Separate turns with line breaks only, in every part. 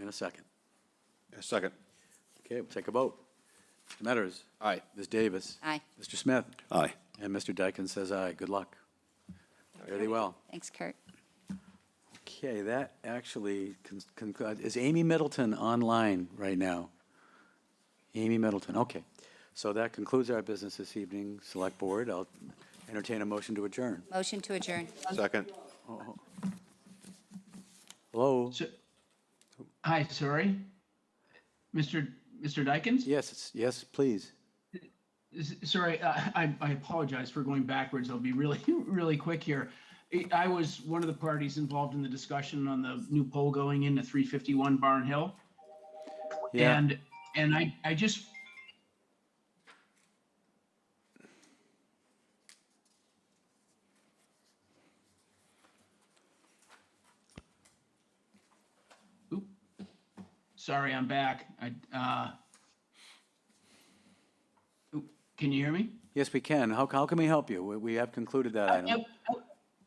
and a second.
Second.
Okay, we'll take a vote. Mr. Metters.
Aye.
Ms. Davis.
Aye.
Mr. Smith.
Aye.
And Mr. Dyken says aye. Good luck. Very well.
Thanks, Kurt.
Okay, that actually, con- con- is Amy Middleton online right now? Amy Middleton, okay. So that concludes our business this evening, Select Board. I'll entertain a motion to adjourn.
Motion to adjourn.
Second.
Hello?
So- Hi, sorry. Mr. Mr. Dykens?
Yes, it's- yes, please.
S- Sorry, uh, I I apologize for going backwards. I'll be really, really quick here. I- I was one of the parties involved in the discussion on the new pole going into 351 Barn Hill.
Yeah.
And, and I, I just. Oop. Sorry, I'm back. I, uh. oop, Can you hear me?
Yes, we can. How, how can we help you? We- We have concluded that item.
Uh, Yep. Um,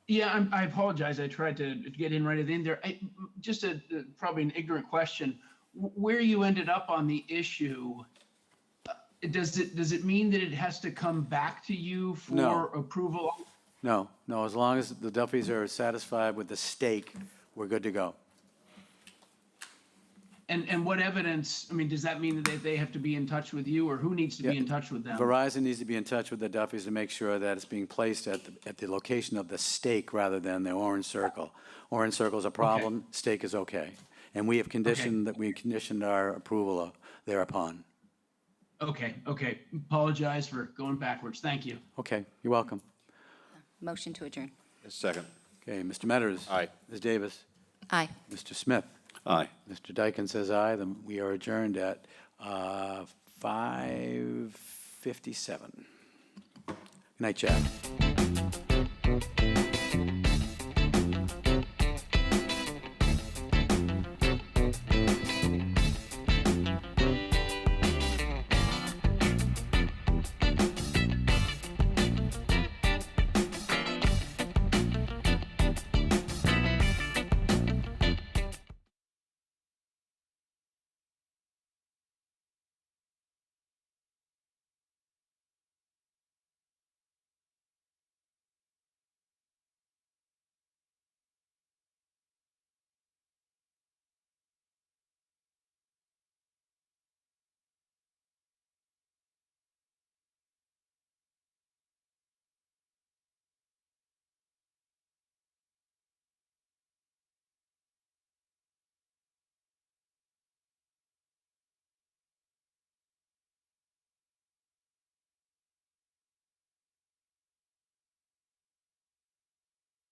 Yeah, I'm, I apologize. I tried to get in right at the end there. I, just a, uh, probably an ignorant question. Wh- Where you ended up on the issue, uh, does it, does it mean that it has to come back to you
No.
for approval?
No, no, as long as the Duffys are satisfied with the stake, we're good to go.
And, and what evidence, I mean, does that mean that they, they have to be in touch with you or who needs to be in touch with them?
Verizon needs to be in touch with the Duffys to make sure that it's being placed at, the- at the location of the stake rather than the orange circle. Orange circle's a problem, stake is okay. And we have conditioned, that we conditioned our approval of- thereupon.
Okay, okay. Apologize for going backwards. Thank you.
Okay, you're welcome.
Motion to adjourn.
Second.
Okay, Mr. Metters.
Aye.
Ms. Davis.
Aye.
Mr. Smith.
Aye.
Mr. Dyken says aye, then we are adjourned at uh, 5:57. Good night, Jack.